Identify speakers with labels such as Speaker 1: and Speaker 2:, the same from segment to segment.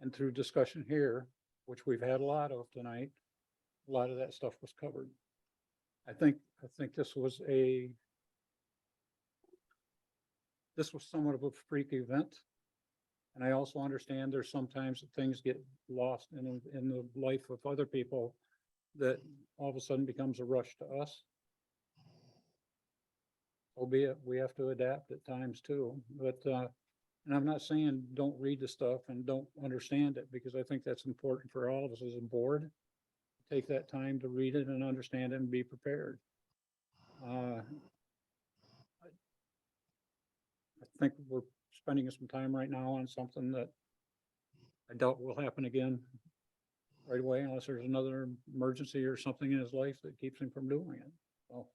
Speaker 1: And through discussion here, which we've had a lot of tonight, a lot of that stuff was covered. I think, I think this was a this was somewhat of a freak event. And I also understand there's sometimes that things get lost in, in the life of other people that all of a sudden becomes a rush to us. Albeit, we have to adapt at times too, but, uh, and I'm not saying don't read the stuff and don't understand it, because I think that's important for all of us as a board. Take that time to read it and understand it and be prepared. Uh, I think we're spending some time right now on something that I doubt will happen again right away unless there's another emergency or something in his life that keeps him from doing it. So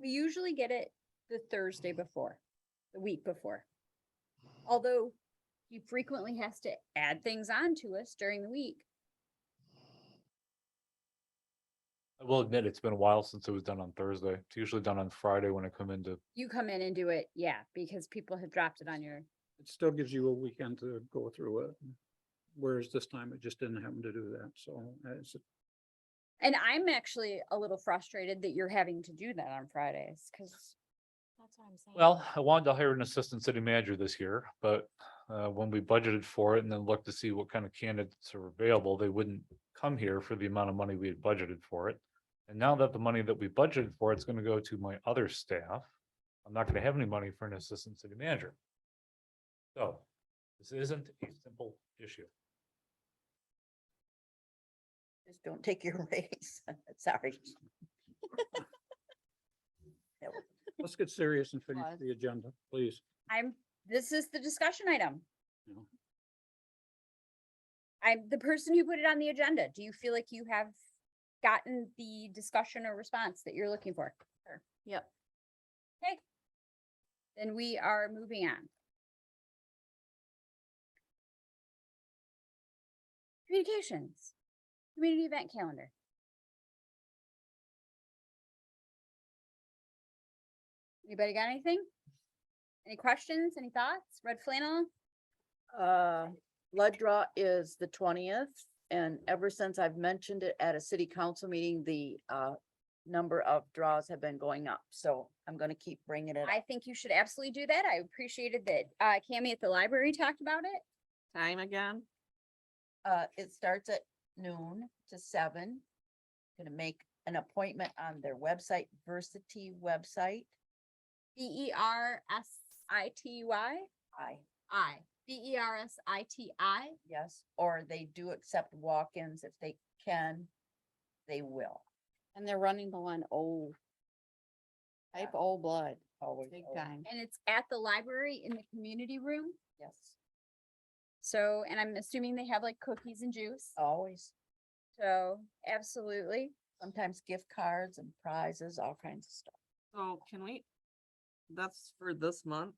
Speaker 2: We usually get it the Thursday before, the week before. Although he frequently has to add things on to us during the week.
Speaker 3: I will admit, it's been a while since it was done on Thursday. It's usually done on Friday when I come into,
Speaker 2: You come in and do it, yeah, because people have dropped it on your,
Speaker 1: it still gives you a weekend to go through it. Whereas this time it just didn't happen to do that. So uh, it's,
Speaker 2: and I'm actually a little frustrated that you're having to do that on Fridays, cause. That's what I'm saying.
Speaker 3: well, I wanted to hire an assistant city manager this year, but uh, when we budgeted for it and then looked to see what kind of candidates are available, they wouldn't come here for the amount of money we had budgeted for it. And now that the money that we budgeted for, it's gonna go to my other staff. I'm not gonna have any money for an assistant city manager. So this isn't a simple issue.
Speaker 4: Just don't take your raise. Sorry. That was-
Speaker 1: let's get serious and finish
Speaker 2: Pause.
Speaker 1: the agenda, please.
Speaker 2: I'm, this is the discussion item.
Speaker 1: you know.
Speaker 2: I'm the person who put it on the agenda. Do you feel like you have gotten the discussion or response that you're looking for?
Speaker 5: Yep.
Speaker 2: Okay. Then we are moving on. Communications, community event calendar. Anybody got anything? Any questions, any thoughts? Red flannel?
Speaker 5: Uh, blood draw is the twentieth, and ever since I've mentioned it at a city council meeting, the, uh, number of draws have been going up, so I'm gonna keep bringing it.
Speaker 2: I
Speaker 5: up.
Speaker 2: think you should absolutely do that. I appreciated that, uh, Cammy at the library talked about it.
Speaker 6: Time again?
Speaker 4: Uh, it starts at noon to seven. Gonna make an appointment on their website, Versity website.
Speaker 2: B E R S I T Y
Speaker 4: I,
Speaker 2: I, B E R S I T I.
Speaker 4: yes, or they do accept walk-ins if they can, they will.
Speaker 7: And they're running the one O. Type
Speaker 4: Yeah.
Speaker 7: O blood,
Speaker 4: Always.
Speaker 7: big
Speaker 4: always,
Speaker 7: time.
Speaker 2: And it's at the library in the community room.
Speaker 4: Yes,
Speaker 2: So, and I'm assuming they have like cookies and juice.
Speaker 6: Oh.
Speaker 4: always.
Speaker 2: So absolutely.
Speaker 4: Sometimes gift cards and prizes, all kinds of stuff.
Speaker 6: So can we? That's for this month,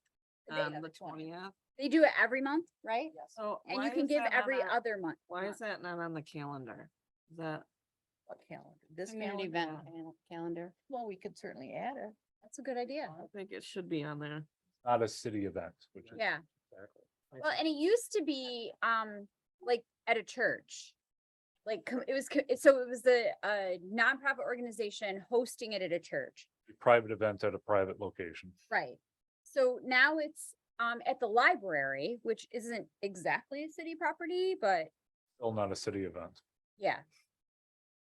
Speaker 4: The day
Speaker 6: on
Speaker 4: of
Speaker 6: the
Speaker 4: the 20th.
Speaker 6: twentieth.
Speaker 2: They do it every month, right?
Speaker 4: Yes.
Speaker 7: Oh.
Speaker 6: So.
Speaker 2: And
Speaker 6: why
Speaker 2: you can
Speaker 6: is
Speaker 2: give
Speaker 6: that not
Speaker 2: every
Speaker 6: on-
Speaker 2: other month.
Speaker 6: Why
Speaker 2: month.
Speaker 6: is that not on the calendar? Is that,
Speaker 4: a calendar, this
Speaker 7: Community
Speaker 4: calendar.
Speaker 7: event
Speaker 6: calendar.
Speaker 7: cal- calendar.
Speaker 4: Well, we could certainly add it.
Speaker 2: That's a good idea.
Speaker 6: I think it should be on there.
Speaker 3: Not a city event, which is.
Speaker 2: Yeah.
Speaker 3: Exactly.
Speaker 2: Well, and it used to be, um, like at a church. Like com- it was, co- it- so it was the, uh, nonprofit organization hosting it at a church.
Speaker 3: A Private event at a private location.
Speaker 2: Right. So now it's, um, at the library, which isn't exactly a city property, but
Speaker 3: still not a city event,
Speaker 2: yeah.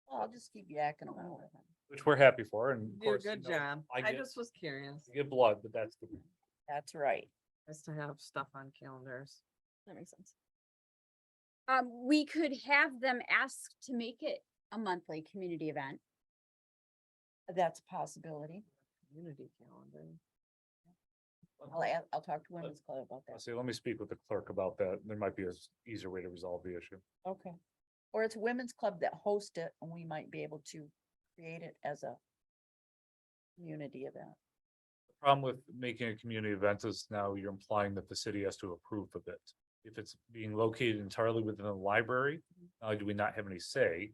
Speaker 4: Well, I'll just keep yakking on.
Speaker 3: which we're happy for and. of
Speaker 6: You did
Speaker 3: course,
Speaker 6: a good
Speaker 3: you know,
Speaker 6: job.
Speaker 3: I
Speaker 6: I
Speaker 3: get-
Speaker 6: just was curious
Speaker 3: you Get blood, but that's the,
Speaker 4: That's right.
Speaker 6: as to have stuff on calendars.
Speaker 5: That makes sense.
Speaker 2: Um, we could have them ask to make it a monthly community event.
Speaker 4: That's a possibility.
Speaker 6: Community calendar.
Speaker 4: I'll, add- I'll talk to Women's Club about
Speaker 3: I'll
Speaker 4: that.
Speaker 3: say, let me speak with the clerk about that. There might be a s- easier way to resolve the issue.
Speaker 4: Okay. Or it's Women's Club that hosts it and we might be able to create it as a community event.
Speaker 3: The Problem with making a community event is now you're implying that the city has to approve of it. If it's being located entirely within the library,
Speaker 6: Mm-hmm.
Speaker 3: not only do we not have any say,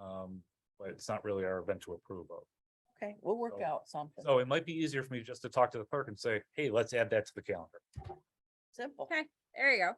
Speaker 3: um, but it's not really our event to approve of.
Speaker 4: Okay, we'll work
Speaker 3: So-
Speaker 4: out something
Speaker 3: So it might be easier for me just to talk to the clerk and say, hey, let's add that to the calendar.
Speaker 4: simple.
Speaker 2: Okay, there you go.